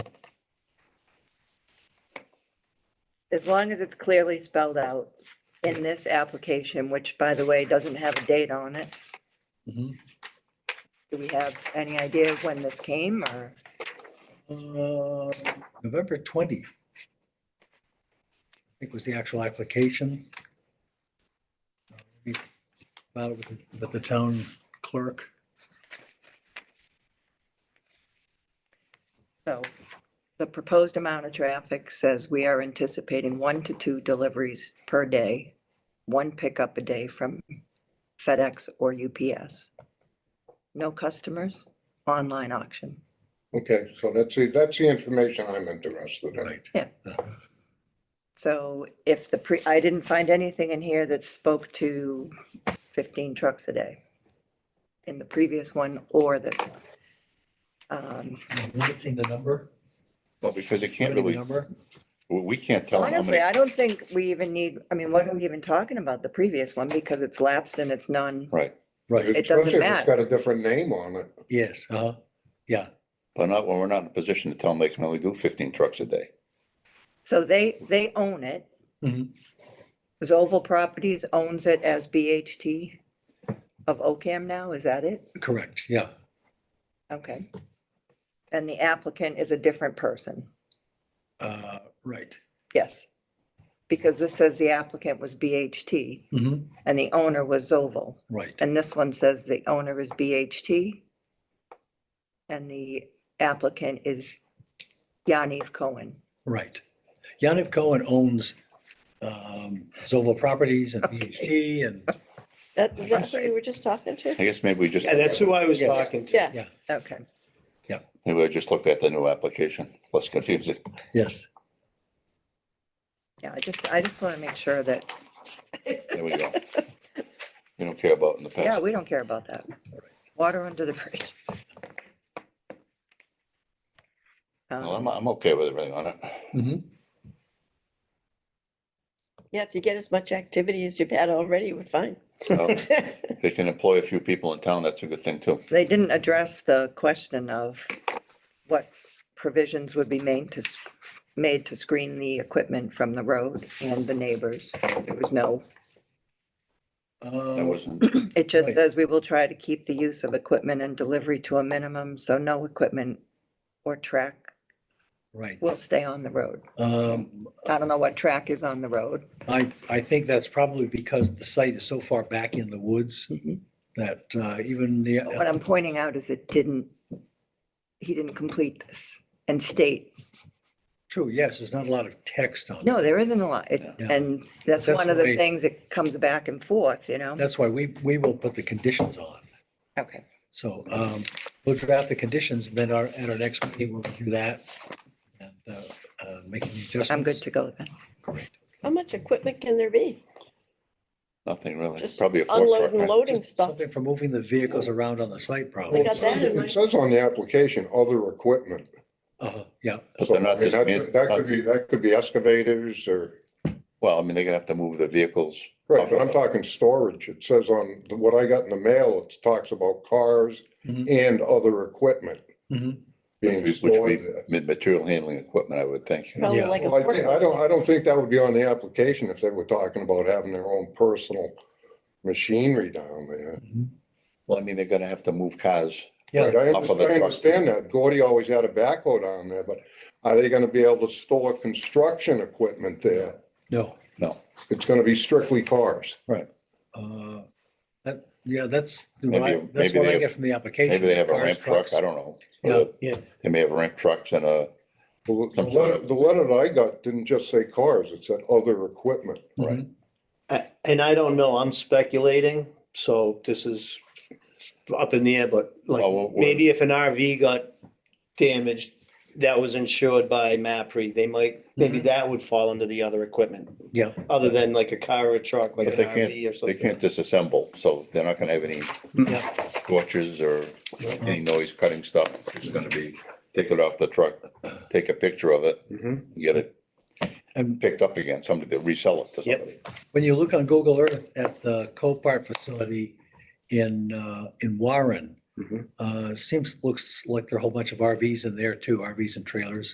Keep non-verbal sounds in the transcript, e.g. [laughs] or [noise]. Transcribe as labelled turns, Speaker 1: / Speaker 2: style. Speaker 1: as long as it's clearly spelled out in this application, which by the way, doesn't have a date on it.
Speaker 2: Mhm.
Speaker 1: Do we have any idea of when this came or?
Speaker 2: Uh, November 20. I think was the actual application. We About it with, the- with the town clerk.
Speaker 1: So the proposed amount of traffic says we are anticipating one to two deliveries per day, one pickup a day from FedEx or UPS. No customers, online auction.
Speaker 3: Okay, so that's the, that's the information I'm interested in.
Speaker 2: Right.
Speaker 1: Yeah.
Speaker 2: Uh-huh.
Speaker 1: So if the pre, I didn't find anything in here that spoke to 15 trucks a day in the previous one or this one. Um,
Speaker 2: Limiting the number.
Speaker 4: Well, because you can't
Speaker 2: limiting the
Speaker 4: really,
Speaker 2: number.
Speaker 4: we we can't tell them how
Speaker 1: Honestly,
Speaker 4: many.
Speaker 1: I don't think we even need, I mean, what are we even talking about the previous one? Because it's lapsed and it's none.
Speaker 4: Right,
Speaker 2: Right,
Speaker 1: It doesn't
Speaker 3: Especially if
Speaker 1: matter.
Speaker 3: It's got a different name on it.
Speaker 2: yes, uh, yeah.
Speaker 4: but not, well, we're not in a position to tell them they can only do fifteen trucks a day.
Speaker 1: So they, they own it.
Speaker 2: Mhm.
Speaker 1: Zoval Properties owns it as BHT of OCAM now, is that it?
Speaker 2: Correct, yeah.
Speaker 1: Okay. And the applicant is a different person,
Speaker 2: Uh, Right.
Speaker 1: yes. Because this says the applicant was BHT
Speaker 2: Mhm,
Speaker 1: and the owner was Zoval.
Speaker 2: Right.
Speaker 1: And this one says the owner is BHT and the applicant is Yaniv Cohen.
Speaker 2: Right. Yaniv Cohen owns um, Zoval Properties and BHD and,
Speaker 5: That, is that who you were just talking to?
Speaker 4: I guess maybe we just,
Speaker 6: Yeah, that's who I was
Speaker 2: Yes.
Speaker 6: talking to.
Speaker 5: Yeah,
Speaker 1: Okay.
Speaker 4: maybe we just look at the new application, less confusing.
Speaker 2: yes,
Speaker 1: Yeah, I just, I just want to make sure that
Speaker 4: There we
Speaker 1: [laughs]
Speaker 4: go. You don't care about in the
Speaker 1: Yeah,
Speaker 4: past.
Speaker 1: we don't care about that. Water under the bridge.
Speaker 4: Well,
Speaker 1: Um,
Speaker 4: I'm, I'm okay with everything on it.
Speaker 2: mhm,
Speaker 5: yeah, if you get as much activity as you've had already,
Speaker 4: [laughs]
Speaker 5: we're fine.
Speaker 4: So, Um, They can employ a few people in town, that's a good thing too.
Speaker 1: They didn't address the question of what provisions would be made to, s- made to screen the equipment from the road and the neighbors. There was no,
Speaker 4: That
Speaker 2: uh,
Speaker 4: wasn't,
Speaker 1: it just
Speaker 2: Right.
Speaker 1: says we will try to keep the use of equipment and delivery to a minimum, so no equipment or track
Speaker 2: Um, right.
Speaker 1: will stay on the road.
Speaker 2: Um,
Speaker 1: I don't know what track is on the road.
Speaker 2: I, I think that's probably because the site is so far back in the woods
Speaker 1: Mhm.
Speaker 2: that uh, even the,
Speaker 1: But What I'm pointing out is it didn't, he didn't complete this and state,
Speaker 2: true, yes, there's not a lot of text on it.
Speaker 1: no, there isn't a lot. It-
Speaker 2: Yeah.
Speaker 1: And that's
Speaker 2: That's
Speaker 1: one of the
Speaker 2: why-
Speaker 1: things that comes back and forth, you know?
Speaker 2: That's why we, we will put the conditions on.
Speaker 1: Okay.
Speaker 2: So um, we'll draft the conditions, then our, at our next meeting, we'll do that and uh, uh, make any adjustments.
Speaker 1: I'm good to go then.
Speaker 5: How much equipment can there be?
Speaker 4: nothing really,
Speaker 5: Just
Speaker 4: probably a four truck.
Speaker 5: unloading,
Speaker 4: right?
Speaker 5: loading
Speaker 2: Just
Speaker 5: stuff.
Speaker 2: Something for moving the vehicles around on the site,
Speaker 4: Oh,
Speaker 2: probably.
Speaker 5: They got that in
Speaker 3: It
Speaker 5: mind.
Speaker 3: says on the application, other equipment.
Speaker 2: Uh-huh, Yeah,
Speaker 4: But
Speaker 3: So
Speaker 4: they're
Speaker 3: I
Speaker 4: not
Speaker 3: mean, that
Speaker 4: just,
Speaker 3: that could be,
Speaker 4: man-
Speaker 3: that could be excavators or,
Speaker 4: well, I mean, they're gonna have to move the vehicles.
Speaker 3: right, but I'm talking storage. It says on, the- what I got in the mail, it talks about cars
Speaker 4: Mm-hmm.
Speaker 2: Mhm.
Speaker 3: and other equipment
Speaker 2: Mhm.
Speaker 3: being
Speaker 4: Which would
Speaker 3: stored
Speaker 4: be
Speaker 3: there.
Speaker 4: ma- material handling equipment, I would think.
Speaker 5: Probably
Speaker 2: Yeah.
Speaker 5: like a
Speaker 3: Well, I think, I
Speaker 5: portable.
Speaker 3: don't, I don't think that would be on the application if they were talking about having their own personal machinery down there.
Speaker 2: Mhm.
Speaker 4: Well, I mean, they're gonna have to move cars.
Speaker 2: Yeah.
Speaker 3: Right, I
Speaker 4: off of
Speaker 3: understand,
Speaker 4: the
Speaker 3: I
Speaker 4: truck.
Speaker 3: understand that. Gordy always had a backhoe down there, but are they gonna be able to store construction equipment there?
Speaker 2: no.
Speaker 3: It's gonna be strictly cars.
Speaker 2: Uh, That, yeah, that's, the
Speaker 4: Maybe-
Speaker 2: right- that's
Speaker 4: maybe
Speaker 2: what I
Speaker 4: they-
Speaker 2: get from the application.
Speaker 4: Maybe they have a
Speaker 2: cars,
Speaker 4: ramp truck,
Speaker 2: trucks.
Speaker 4: I don't know.
Speaker 2: Yeah.
Speaker 6: Yeah.
Speaker 4: They may have ramp trucks and uh, a,
Speaker 3: The the
Speaker 4: Some sort
Speaker 3: letter,
Speaker 4: of-
Speaker 3: the letter that I got didn't just say cars, it said other equipment.
Speaker 2: Right.
Speaker 6: I- And I don't know, I'm speculating, so this is up in the air, but like,
Speaker 4: Oh, well, well-
Speaker 6: maybe if an RV got damaged, that was insured by MAPRE, they might, maybe that would fall under the other equipment,
Speaker 2: Yeah,
Speaker 6: other than like a car or a truck, like
Speaker 4: But
Speaker 6: an
Speaker 4: they can't-
Speaker 6: RV or
Speaker 4: they
Speaker 6: something.
Speaker 4: can't disassemble, so they're not gonna have any
Speaker 2: yeah,
Speaker 4: torches or any noise cutting stuff. It's gonna be, take it off the truck, take a picture of it,
Speaker 6: Mhm.
Speaker 4: get it
Speaker 2: Mm-hmm. and
Speaker 4: picked up again, somebody, they'll resell it to
Speaker 6: Yep.
Speaker 4: somebody.
Speaker 2: when you look on Google Earth at the Copart facility in, uh, in Warren,
Speaker 6: Mhm.
Speaker 2: uh, seems, looks like there are a whole bunch of RVs in there too, RVs and trailers.